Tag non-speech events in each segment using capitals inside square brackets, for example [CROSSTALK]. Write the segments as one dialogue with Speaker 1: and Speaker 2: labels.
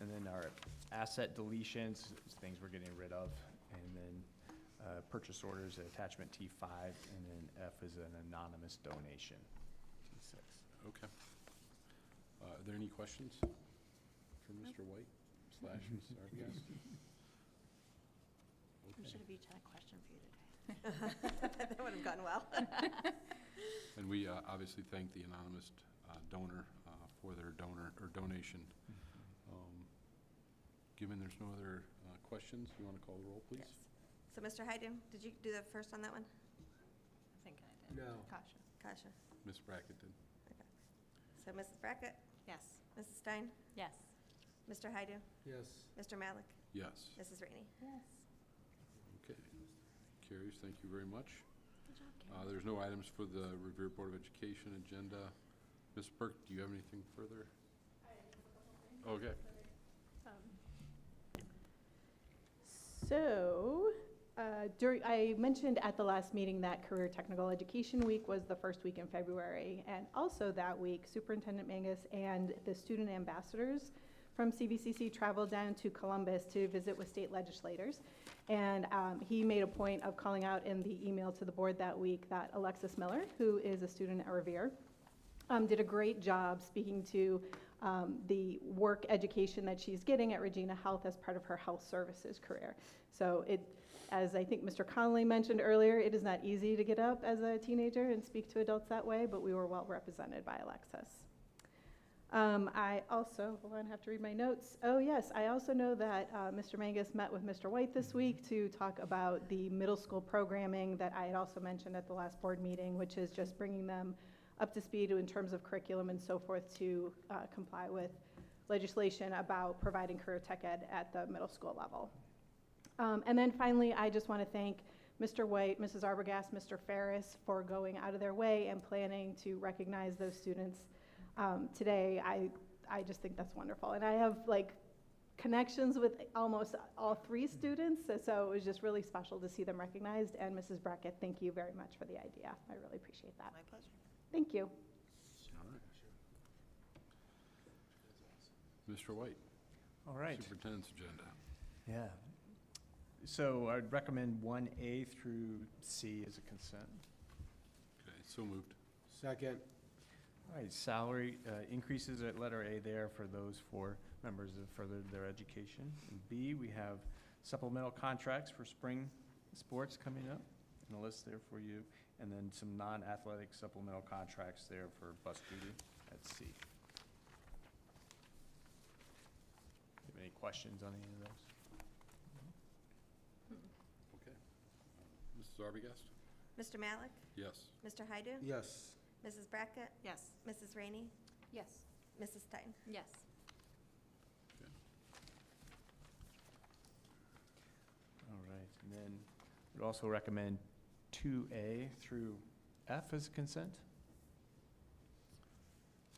Speaker 1: And then our asset deletions, things we're getting rid of, and then uh, purchase orders, attachment T5, and then F is an anonymous donation.
Speaker 2: T6, okay. Uh, Are there any questions for Mr. White slash Ms. Arbogast?
Speaker 3: I
Speaker 2: Okay.
Speaker 3: should have each had a question for you today.
Speaker 4: [LAUGHS] That would have gone
Speaker 3: [LAUGHS]
Speaker 4: well.
Speaker 2: And we uh, obviously thank the anonymous uh, donor uh, for their donor, or donation. Um, Given there's no other uh, questions, you want to call the roll, please?
Speaker 4: Yes. So, Mr. Hyden, did you do the first on that one?
Speaker 3: I think I did.
Speaker 5: No.
Speaker 3: Kasha?
Speaker 4: Kasha.
Speaker 2: Ms. Brackett did.
Speaker 4: Okay. So, Mrs. Brackett,
Speaker 3: Yes.
Speaker 4: Mrs. Stein,
Speaker 3: Yes.
Speaker 4: Mr. Hyden,
Speaker 5: Yes.
Speaker 4: Mr. Malik,
Speaker 2: Yes,
Speaker 4: Mrs. Rainey.
Speaker 3: Yes.
Speaker 2: okay. Carries, thank you very much.
Speaker 3: Good job,
Speaker 2: Uh,
Speaker 3: Karen.
Speaker 2: There's no items for the Revere Board of Education agenda. Ms. Burke, do you have anything further? Okay.
Speaker 6: So, uh, during, I mentioned at the last meeting that Career Technical Education Week was the first week in February. And also that week, Superintendent Mangus and the student ambassadors from CVCC traveled down to Columbus to visit with state legislators. And um, he made a point of calling out in the email to the board that week that Alexis Miller, who is a student at Revere, um, did a great job speaking to um, the work education that she's getting at Regina Health as part of her health services career. So it, as I think Mr. Connolly mentioned earlier, it is not easy to get up as a teenager and speak to adults that way, but we were well represented by Alexis. Um, I also, hold on, I have to read my notes. Oh, yes, I also know that uh, Mr. Mangus met with Mr. White this week to talk about the middle school programming that I had also mentioned at the last board meeting, which is just bringing them up to speed in terms of curriculum and so forth to uh, comply with legislation about providing career tech ed at the middle school level. Um, And then finally, I just want to thank Mr. White, Mrs. Arbogast, Mr. Ferris for going out of their way and planning to recognize those students um, today. I, I just think that's wonderful. And I have like connections with almost all three students, so- so it was just really special to see them recognized. And Mrs. Brackett, thank you very much for the idea. I really appreciate that.
Speaker 4: My pleasure.
Speaker 6: Thank you.
Speaker 2: All right. Mr. White,
Speaker 1: Mm-hmm. All right.
Speaker 2: Superintendent's Agenda.
Speaker 1: Yeah. So I'd recommend 1A through C as a consent.
Speaker 2: Okay, so moved.
Speaker 5: Second.
Speaker 1: All right, salary uh, increases at letter A there for those four members that furthered their education. And B, we have supplemental contracts for spring sports coming up, and a list there for you. And then some non-athletic supplemental contracts there for bus duty at C. Have any questions on any of those?
Speaker 2: Okay. Mrs. Arbogast?
Speaker 4: Mr. Malik,
Speaker 2: Yes.
Speaker 4: Mr. Hyden,
Speaker 5: Yes.
Speaker 4: Mrs. Brackett,
Speaker 3: Yes.
Speaker 4: Mrs. Rainey,
Speaker 3: Yes.
Speaker 4: Mrs. Stein.
Speaker 3: Yes.
Speaker 2: Okay.
Speaker 1: All right, and then we'd also recommend 2A through F as consent.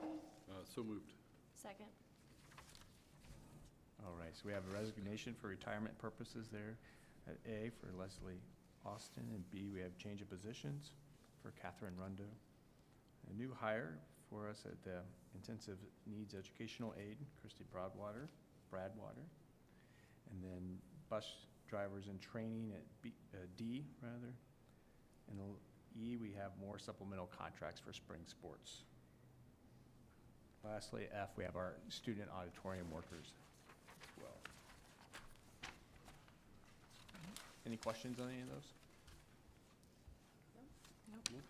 Speaker 2: Uh, So moved.
Speaker 3: Second?
Speaker 1: All right, so we have a resignation for retirement purposes there at A for Leslie Austin, and B, we have change of positions for Catherine Rundo. A new hire for us at the Intensive Needs Educational Aid, Christy Broadwater, Bradwater. And then bus drivers in training at B, uh, D, rather. And the E, we have more supplemental contracts for spring sports. Lastly, F, we have our student auditorium workers as well. Any questions on any of those?
Speaker 2: Okay,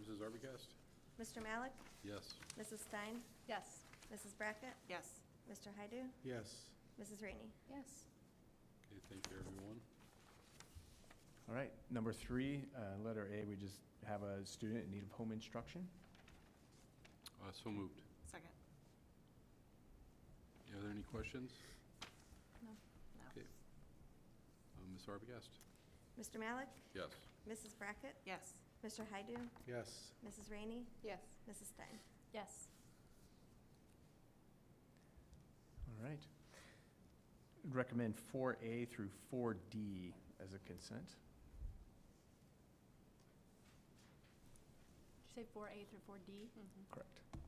Speaker 2: Mrs. Arbogast?
Speaker 4: Mr. Malik,
Speaker 2: Yes.
Speaker 4: Mrs. Stein,
Speaker 3: Yes.
Speaker 4: Mrs. Brackett,
Speaker 3: Yes.
Speaker 4: Mr. Hyden,
Speaker 5: Yes.
Speaker 4: Mrs. Rainey.
Speaker 3: Yes.
Speaker 2: Okay, thank you, everyone.
Speaker 1: All right, number three, uh, letter A, we just have a student in need of home instruction.
Speaker 2: Uh, So moved.
Speaker 3: Second?
Speaker 2: Are there any questions?
Speaker 3: No. No.
Speaker 2: Okay. Uh, Ms. Arbogast?
Speaker 4: Mr. Malik,
Speaker 2: Yes.
Speaker 4: Mrs. Brackett,
Speaker 3: Yes.
Speaker 4: Mr. Hyden,
Speaker 5: Yes.
Speaker 4: Mrs. Rainey,
Speaker 3: Yes.
Speaker 4: Mrs. Stein.
Speaker 3: Yes.
Speaker 1: All right. Recommend four A through four D as a consent.
Speaker 3: Did you say four A through four D? Mm-hmm.
Speaker 1: Correct.